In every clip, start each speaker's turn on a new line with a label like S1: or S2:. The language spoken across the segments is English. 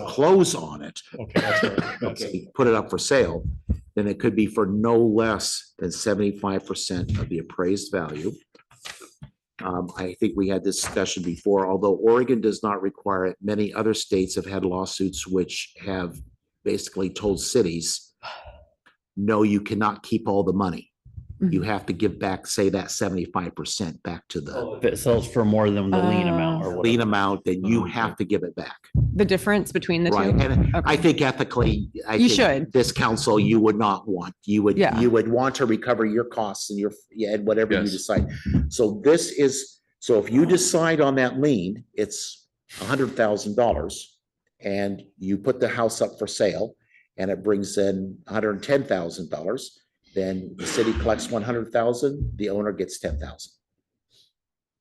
S1: foreclose on it,
S2: Okay, that's right. That's it.
S1: and put it up for sale, then it could be for no less than seventy-five percent of the appraised value. Um, I think we had this discussion before, although Oregon does not require it, many other states have had lawsuits which have basically told cities, no, you cannot keep all the money. You have to give back, say that seventy-five percent back to the
S3: If it sells for more than the lien
S4: Uh,
S3: amount or
S1: lien
S3: Oh, whatever.
S1: amount, then you have to give it back.
S4: the difference between the
S1: Right,
S4: two.
S1: and I
S4: Okay.
S1: think ethically, I
S4: You
S1: think
S4: should.
S1: This council, you would not want, you would,
S4: Yeah.
S1: you would want to recover your costs and your, yeah, and whatever you
S5: Yes.
S1: decide. So this is, so if you decide on that lien, it's a hundred thousand dollars. And you put the house up for sale and it brings in hundred and ten thousand dollars. Then the city collects one hundred thousand, the owner gets ten thousand.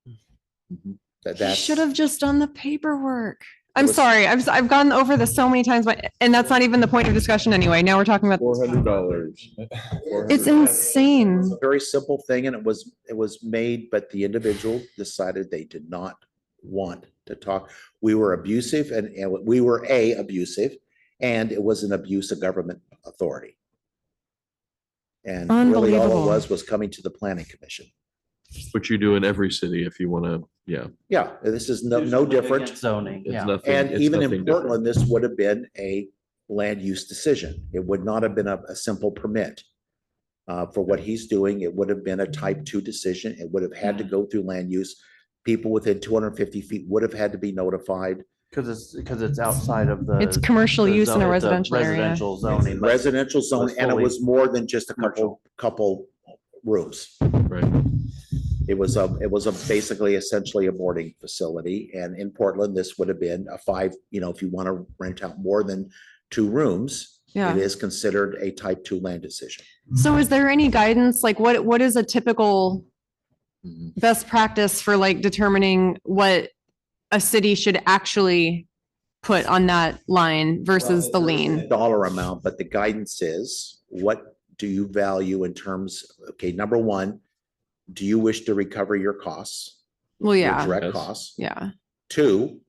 S4: Hmm.
S1: That,
S4: He
S1: that's.
S4: should have just done the paperwork. I'm
S1: was-
S4: sorry. I've, s- I've gone over this so many times, but, and that's not even the point of discussion anyway. Now we're talking about,
S5: Four hundred dollars.
S4: it's insane.
S1: a very simple thing and it was, it was made, but the individual decided they did not want to talk. We were abusive and, and we were A, abusive, and it was an abuse of government authority. And really all
S4: Unbelievable.
S1: it was, was coming to the planning commission.
S5: Which you do in every city if you want to, yeah,
S1: Yeah, this is no, no different.
S3: Zoning,
S5: it's
S3: yeah.
S5: nothing.
S1: And
S5: it's
S1: even in
S5: nothing different.
S1: Portland, this would have been a land use decision. It would not have been a, a simple permit. Uh, for what he's doing, it would have been a type two decision. It would have had
S5: Mm.
S1: to go through land use. People within two hundred and fifty feet would have had to be notified.
S3: Cause it's, cause it's outside of the.
S4: It's commercial
S3: the
S4: use in
S3: zone-
S4: a
S3: the
S4: residential area.
S3: Residential zoning. but-
S1: Residential zone, and it
S3: fully-
S1: was more than just a couple, couple rooms.
S5: Right.
S1: It was a, it was a basically essentially a boarding facility. And in Portland, this would have been a five, you know, if you want to rent out more than two rooms,
S4: Yeah.
S1: it is considered a type two land decision.
S4: So is there any guidance? Like what, what is a typical
S5: Mm-hmm.
S4: best practice for like determining what a city should actually put on that line versus the lien?
S1: Dollar amount, but the guidance is, what do you value in terms, okay, number one, do you wish to recover your costs?
S4: Well,
S1: your
S4: yeah,
S1: Direct
S5: Yes.
S1: costs.
S4: yeah.
S1: Two,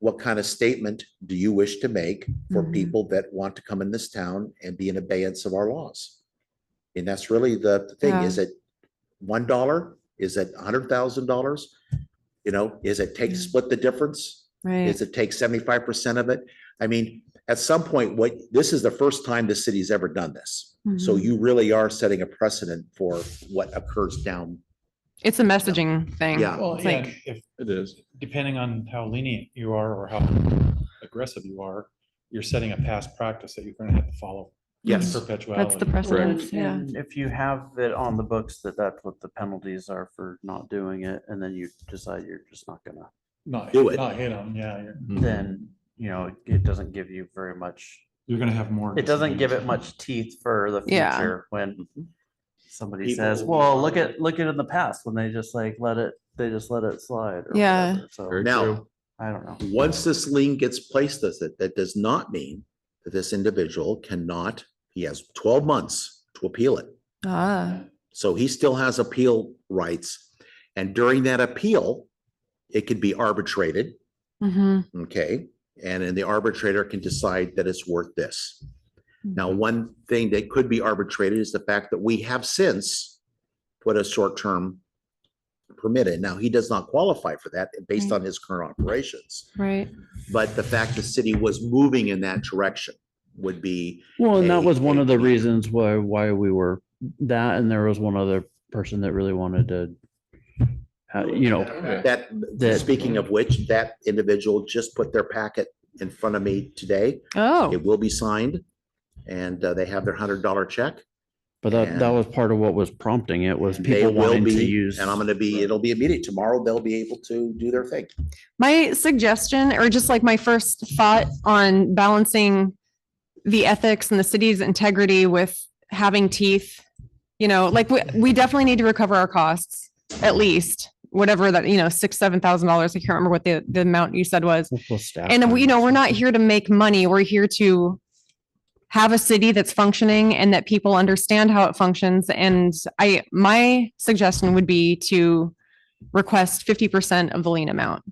S1: what kind of statement do you wish to make for
S4: Mhm.
S1: people that want to come in this town and be in abeyance of our laws? And that's really the the thing,
S4: Yeah.
S1: is it one dollar? Is it a hundred thousand dollars? You know, is it take,
S4: Yeah.
S1: split the difference?
S4: Right.
S1: Is it take seventy-five percent of it? I mean, at some point, what, this is the first time the city's ever done this. So
S4: Mhm.
S1: you really are setting a precedent for what occurs down.
S4: It's a messaging thing.
S1: Yeah.
S2: Well,
S4: It's
S2: yeah,
S4: like,
S2: and if,
S5: It is.
S2: depending on how lenient you are or how aggressive you are, you're setting a past practice that you're gonna have to follow. in
S1: Yes.
S4: that's the
S2: Perpetuality.
S4: precedent, yeah.
S3: And if you have it on the books that that's what the penalties are for not doing it, and then you decide you're just not gonna,
S2: Not,
S1: Do it.
S2: not hit them, yeah, you're,
S3: Hmm.
S5: Mm-hmm.
S3: then, you know, it doesn't give you very much.
S2: you're gonna have more.
S3: It doesn't give it
S2: disagreements.
S3: much teeth for the
S4: Yeah.
S3: future when somebody
S1: People
S3: says,
S1: will be
S3: well, look
S1: harder.
S3: at, look at in the past when they just like let it, they just let it slide. or
S4: Yeah.
S3: whatever, So
S5: Very
S1: Now,
S5: true.
S3: I don't know.
S1: Once this lien gets placed, does it, that does not mean that this individual cannot, he has twelve months to appeal it.
S4: Ah,
S1: So he still has appeal rights. And during that appeal, it could be arbitrated,
S4: hmm
S1: okay? And then the arbitrator can decide that it's worth this. Now, one thing that could be arbitrated is the fact that we have since put a short-term permit in. Now, he does not qualify for that based
S4: Right.
S1: on his current operations.
S4: right.
S1: But the fact the city was moving in that direction would be,
S3: Well, and that
S1: a-
S3: was one of the
S1: a-
S3: reasons why, why we were that, and there was one other person that really wanted to. ha- You know,
S1: that,
S3: That-
S1: speaking of which, that individual just put their packet in front of me today.
S4: Oh,
S1: It will be signed and uh, they have their hundred dollar check.
S3: but that, that was part of what was prompting it was
S1: They
S3: people
S1: will
S3: wanting to
S1: be,
S3: use.
S1: and I'm gonna be, it'll be immediate. Tomorrow they'll be able to do their thing.
S4: my suggestion or just like my first thought on balancing the ethics and the city's integrity with having teeth. You know, like we, we definitely need to recover our costs, at least whatever that, you know, six, seven thousand dollars. I can't remember what the, the amount you said was.
S3: We'll staff
S4: And uh,
S3: them.
S4: we- you know, we're not here to make money. We're here to have a city that's functioning and that people understand how it functions. And I, my suggestion would be to request fifty percent of the lien amount.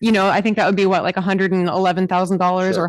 S4: you know, I think that would be what, like hundred and eleven thousand dollars
S1: Sure.
S4: or